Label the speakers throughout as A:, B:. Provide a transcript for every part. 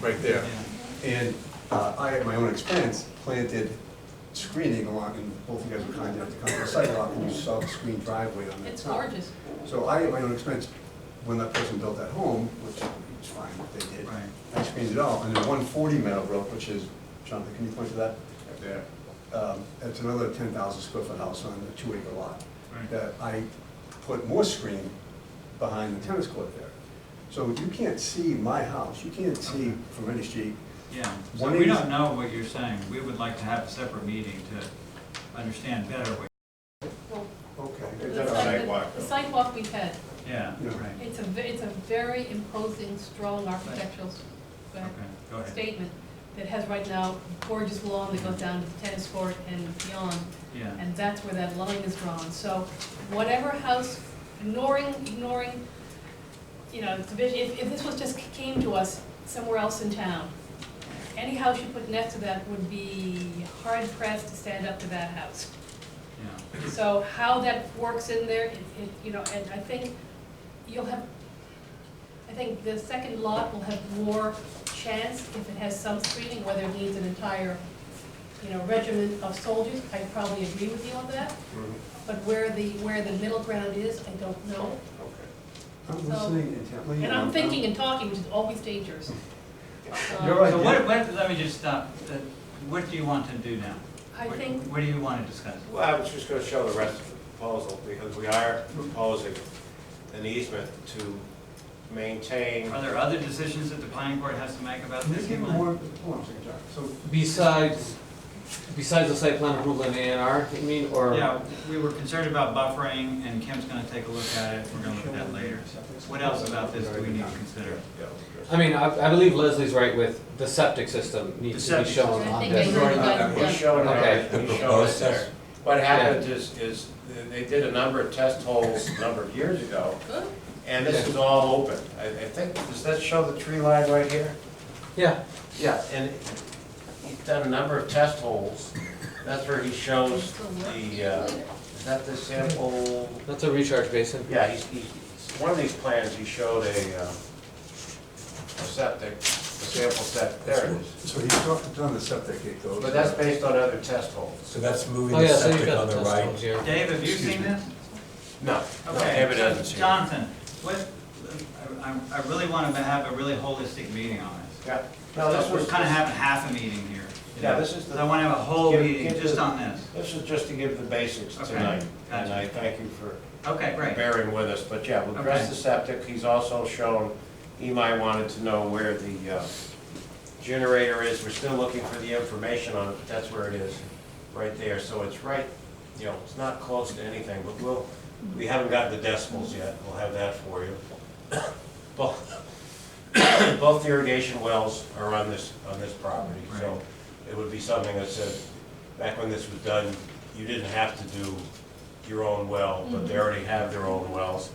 A: right there.
B: And uh, I, at my own expense, planted screening along, and both of you guys were kind enough to come to the sidewalk, and you saw the screened driveway on that
C: It's
B: side.
C: gorgeous.
B: So I, at my own expense, when that person built that home, which was fine what they did,
D: Right.
B: I screened it all, and then one forty Meadowbrook, which is, Jonathan, can you point to that?
A: Yeah.
B: Um, It's another ten thousand square foot house on a two acre lot.
D: Right.
B: That I put more screen behind the tennis court there. So you can't see my house, you can't see from any street,
D: Yeah, so
B: One
D: we
B: is-
D: don't know what you're saying. We would like to have a separate meeting to understand better what,
C: Well,
B: Okay.
C: the
A: a
C: site-
A: sidewalk,
C: The
A: though.
C: sidewalk we've had,
D: yeah,
B: Yeah.
D: right.
C: it's a, ve- it's a very imposing, strong architectural s- uh,
D: Okay, go ahead.
C: statement that has right now gorgeous lawn that goes down to the tennis court and beyond,
D: Yeah,
C: and that's where that line is drawn. So whatever house, ignoring, ignoring, you know, division, if, if this was just came to us somewhere else in town, any house you put next to that would be hard pressed to stand up to that house.
D: yeah,
C: So how that works in there, it, it, you know, and I think you'll have, I think the second lot will have more chance if it has some screening, whether it needs an entire, you know, regiment of soldiers, I probably agree with you on that.
A: Mm-hmm.
C: But where the, where the middle ground is, I don't know.
B: I'm
C: So-
B: listening intently.
C: And I'm thinking and talking, which is always dangerous. Um,
B: You're right.
D: So what, what, let me just stop. Uh, What do you want to do now?
C: I
D: What-
C: think-
D: What do you want to discuss?
A: Well, I was just gonna show the rest of the proposal, because we are proposing an easement to maintain,
D: Are there other decisions that the planning board has to make about
B: Can
D: this?
B: you give me more, hold on a second, John. So
E: Besides, besides the site plan approval and A and R, you mean, or?
D: Yeah, we were concerned about buffering, and Kim's gonna take a look at it, we're gonna look at that later. What else about this do we need to consider?
E: I mean, I, I believe Leslie's right with the septic system needs
D: The
E: to be
D: septic
E: shown
C: system.
E: on
C: I think
E: this.
C: they were- Yeah.
A: He's showing
E: Okay.
A: it, he's showing it there. What happened is, is they did a number of test holes a number of years ago,
C: Good.
A: and this is all open. I, I think, does that show the tree line right here?
E: Yeah,
A: Yeah. And he's done a number of test holes, that's where he shows the, uh, is that the sample?
E: that's a recharge basin.
A: Yeah, he's, he's, one of these plans, he showed a, uh, a septic, a sample septic, there it is.
B: so you talked to on the septic gate though.
A: But that's based on other test holes.
F: So that's moving
E: Oh,
F: the
E: yeah, so you've
F: septic
E: got
F: on
E: the
F: the
E: test holes
F: right.
E: here.
D: Dave, have you
F: Excuse
D: seen
F: me.
D: this?
A: No, no,
D: Okay.
A: David hasn't seen it.
D: Jonathan, what, I, I- I really want to have a really holistic meeting on this.
A: Yeah, no, this
D: We're
A: was,
D: kind of having half a meeting here. you
A: Yeah,
D: know.
A: this is the-
D: So I want to have a whole
A: Give-
D: meeting
A: give
D: just
A: the-
D: on this.
A: this is just to give the basics
D: Okay,
A: tonight, and
D: gotcha.
A: I thank you for
D: Okay, great.
A: bearing with us, but yeah, we'll address
D: Okay.
A: the septic, he's also shown, Imai wanted to know where the uh, generator is, we're still looking for the information on it, but that's where it is, right there, so it's right, you know, it's not close to anything, but we'll, we haven't gotten the decimals yet, we'll have that for you. Both, both irrigation wells are on this, on this property, so
D: Right.
A: it would be something that said, back when this was done, you didn't have to do your own well, but they already have their own wells.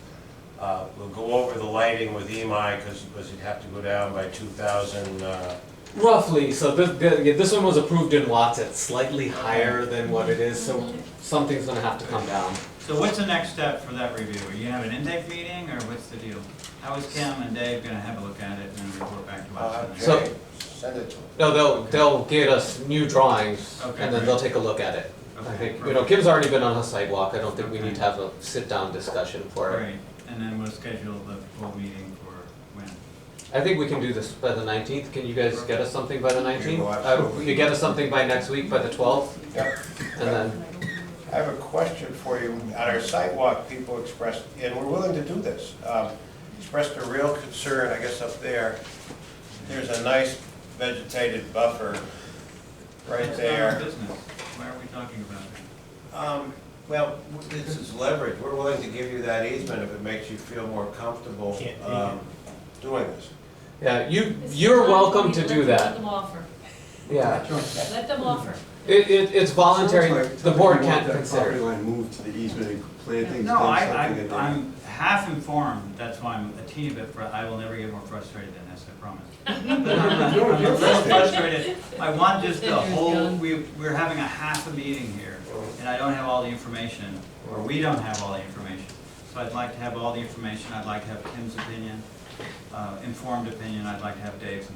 A: Uh, We'll go over the lighting with E EMI, because, you'd have to go down by two thousand, uh,
E: Roughly, so this, th- yeah, this one was approved in watts, it's slightly higher than what it is, so something's gonna have to come down.
D: So what's the next step for that review? Are you have an intake meeting, or what's the deal? How is Kim and Dave going to have a look at it and then report back to
A: uh,
D: us?
E: So-
A: Jay, send it to them.
E: No, they'll, they'll get us new drawings,
D: Okay,
E: and then they'll take a look at it. I
A: Uh,
D: Okay,
E: think, you know,
D: perfect.
E: Kim's already been on a sidewalk, I don't think we
D: Okay.
E: need to have a sit-down discussion for it.
D: Great, and then we'll schedule the full meeting for when?
E: I think we can do this by the nineteenth, can you guys get us something by the nineteenth?
A: well,
E: Uh,
A: absolutely.
E: if you get us something by next week, by the twelfth,
A: Yep.
E: and then,
A: I have a question for you. At our site walk, people expressed, and we're willing to do this, um, expressed a real concern, I guess up there. There's a nice vegetated buffer right
D: That's not our
A: there.
D: business. Why are we talking about it?
A: Um, Well, this is leverage. We're willing to give you that easement if it makes you feel more comfortable um, doing this.
E: yeah, you, you're welcome to do
C: Let
E: that.
C: them offer,
E: Yeah.
C: let them offer.
E: It, it, it's voluntary,
B: Sounds like
E: the board
B: something
E: can't
B: about that Property
E: consider.
B: line moved to the easement and plantings, then
D: No, I,
B: something
D: I,
B: that
D: I'm half informed, that's why I'm a teeny bit, fr- I will never get more frustrated than this, I promise. But I'm not-
B: You're-
D: I'm
B: you're
D: a little frustrated, I want just the
C: Just that you're
D: whole,
C: young.
D: we, we're having a half a meeting here, and I don't have all the information, or we don't have all the information. So I'd like to have all the information, I'd like to have Tim's opinion, uh, informed opinion, I'd like to have Dave's